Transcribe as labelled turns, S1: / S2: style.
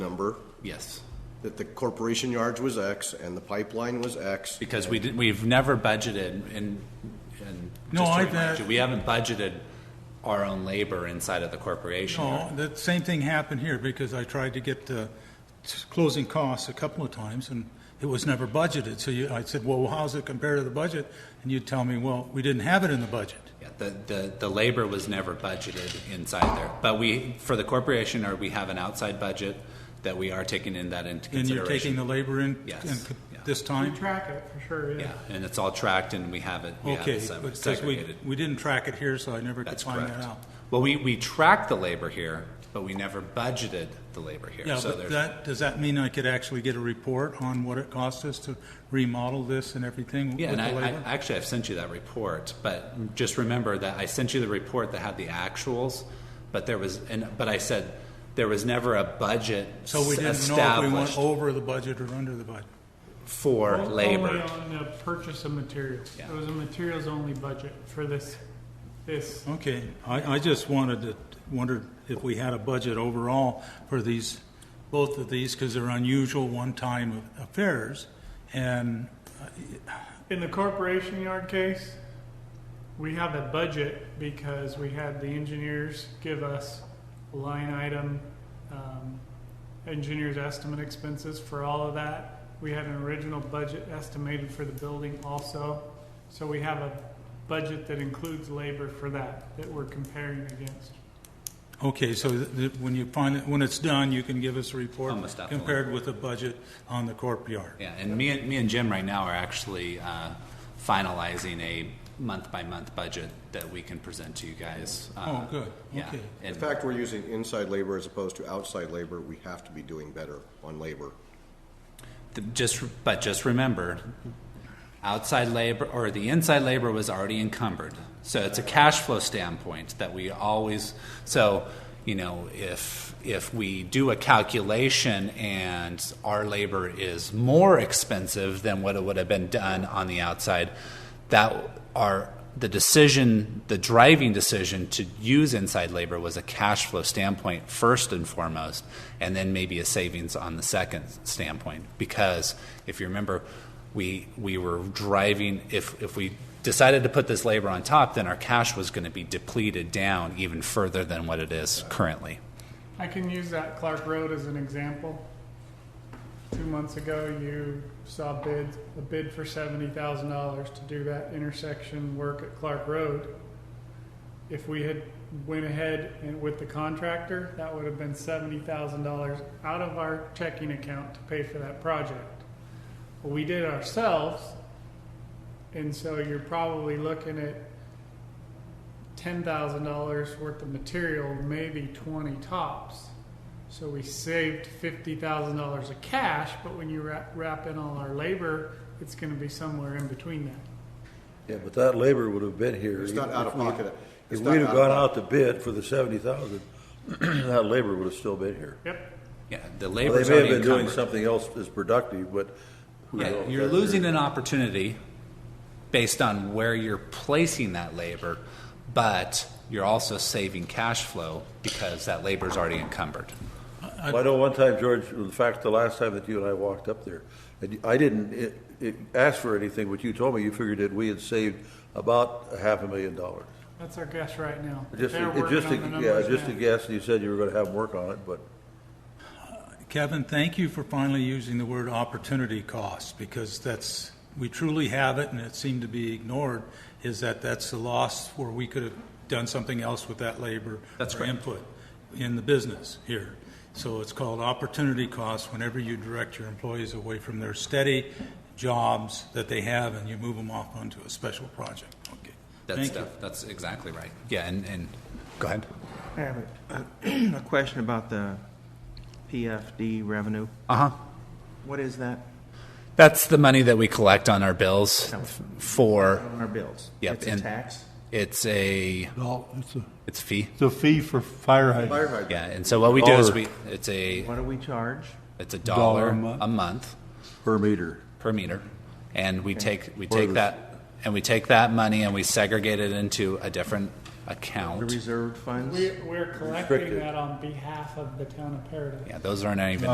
S1: number,
S2: Yes,
S1: that the corporation yards was X and the pipeline was X.
S2: because we did, we've never budgeted and, and just to
S3: No, I
S2: remind
S3: bet-
S2: you, we haven't budgeted our own labor inside of the corporation.
S3: No, Oh, the same thing happened here because I tried to get the t- closing costs a couple of times and it was never budgeted. So you, I said, well, how's it compared to the budget? And you'd tell me, well, we didn't have it in the budget.
S2: Yeah, the, the, the labor was never budgeted inside there, but we, for the corporation, or we have an outside budget that we are taking in that into
S3: And you're taking
S2: consideration.
S3: the labor in,
S2: Yes,
S3: in c-
S2: yeah.
S3: this
S4: We
S3: time?
S4: track it, for sure, yeah.
S2: Yeah, and it's all tracked and we have it, we have
S3: Okay,
S2: it seg-
S3: because we,
S2: segregated.
S3: we didn't track it here, so I never could
S2: That's
S3: find
S2: correct.
S3: that out.
S2: Well, we, we track the labor here, but we never budgeted the labor here,
S3: Yeah,
S2: so
S3: but
S2: there's,
S3: that, does that mean I could actually get a report on what it cost us to remodel this and everything with the
S2: yeah, and I, I,
S3: labor?
S2: actually, I've sent you that report, but just remember that I sent you the report that had the actuals, but there was, and, but I said, there was never a budget
S3: So we didn't know if we
S2: established
S3: went over the budget or under the budget.
S2: for
S3: Oh,
S4: O- Only
S2: labor.
S4: on the purchase of materials.
S2: Yeah.
S4: It was a materials-only budget for this, this.
S3: Okay, I, I just wanted to, wondered if we had a budget overall for these, both of these, because they're unusual one-time affairs. And,
S4: In the corporation yard case, we have a budget because we had the engineers give us line item, um, engineers estimate expenses for all of that. We had an original budget estimated for the building also. So we have a budget that includes labor for that, that we're comparing against.
S3: okay, so th- th- when you find, it when it's done, you can give us a report
S2: Almost definitely.
S3: compared with the budget on the corp yard.
S2: Yeah, and me and me and Jim right now are actually uh, finalizing a month by month budget that we can present to you guys. Uh,
S3: Oh, good,
S2: Yeah,
S3: okay.
S1: In
S2: and
S1: fact, we're using inside labor as opposed to outside labor. We have to be doing better on labor.
S2: th- just but just remember, outside labor or the inside labor was already encumbered, so it's a cash flow standpoint that we always so. You know, if if we do a calculation and our labor is more expensive than what it would have been done on the outside, that our the decision, the driving decision to use inside labor was a cash flow standpoint first and foremost, and then maybe a savings on the second standpoint. Because if you remember, we we were driving. If if we decided to put this labor on top, then our cash was going to be depleted down even further than what it is currently.
S4: I can use that Clark Road as an example. Two months ago, you saw bid, a bid for seventy thousand dollars to do that intersection work at Clark Road. If we had went ahead and with the contractor, that would have been seventy thousand dollars out of our checking account to pay for that project. We did it ourselves, and so you're probably looking at ten thousand dollars worth of material, maybe twenty tops. So we saved fifty thousand dollars of cash, but when you wrap, wrap in all our labor, it's going to be somewhere in between that.
S5: Yeah, but that labor would have been here.
S1: It's not out of
S5: If we-
S1: pocket.
S5: If
S1: It's not
S5: we'd have
S1: out of
S5: gone out to bid for the seventy thousand, that labor would have still been here.
S4: Yep.
S2: Yeah, the
S5: Well,
S2: labor's
S5: They may have
S2: already
S5: been doing
S2: encumbered.
S5: something else that's productive, but who
S2: Yeah,
S5: knows?
S2: you're
S5: That's
S2: losing
S5: their-
S2: an opportunity based on where you're placing that labor, but you're also saving cash flow because that labor's already encumbered.
S5: Well, I know one time, George, in fact, the last time that you and I walked up there, and you- I didn't it- it- ask for anything, but you told me you figured that we had saved about a half a million dollars.
S4: That's our guess right now.
S5: Just,
S4: They're
S5: a-
S4: working
S5: just, a-
S4: on the
S5: yeah,
S4: numbers
S5: just a
S4: now.
S5: guess, and you said you were gonna have them work on it, but
S3: Kevin, thank you for finally using the word opportunity cost, because that's, we truly have it, and it seemed to be ignored, is that that's the loss where we could have done something else with that labor.
S2: That's
S3: or
S2: correct.
S3: Input in the business here. So it's called opportunity cost whenever you direct your employees away from their steady jobs that they have, and you move them off onto a special project. Okay.
S2: That's,
S3: Thank you.
S2: def- that's exactly right. Yeah, and, and, go ahead.
S6: I have a a question about the PFD revenue.
S2: Uh-huh.
S6: What is that
S2: That's the money that we collect on our bills f- for,
S6: on our bills?
S2: Yep,
S6: It's a
S2: and-
S6: tax?
S2: it's a,
S7: No, it's a,
S2: it's a fee.
S7: it's a fee for fire hydrant.
S1: Fire hydrant.
S2: Yeah, and so what we do is
S5: Dollar.
S2: we, it's a,
S6: What do we charge?
S2: it's a
S7: Dollar
S2: dollar
S7: a month.
S2: a month.
S5: per meter.
S2: per meter, and we take, we
S5: Or
S2: take
S5: the-
S2: that, and we take that money and we segregate it into a different
S6: The
S2: account.
S6: reserved funds?
S4: We, we're collecting
S5: Restricted.
S4: that on behalf of the town of Paradise.
S2: Yeah, those aren't even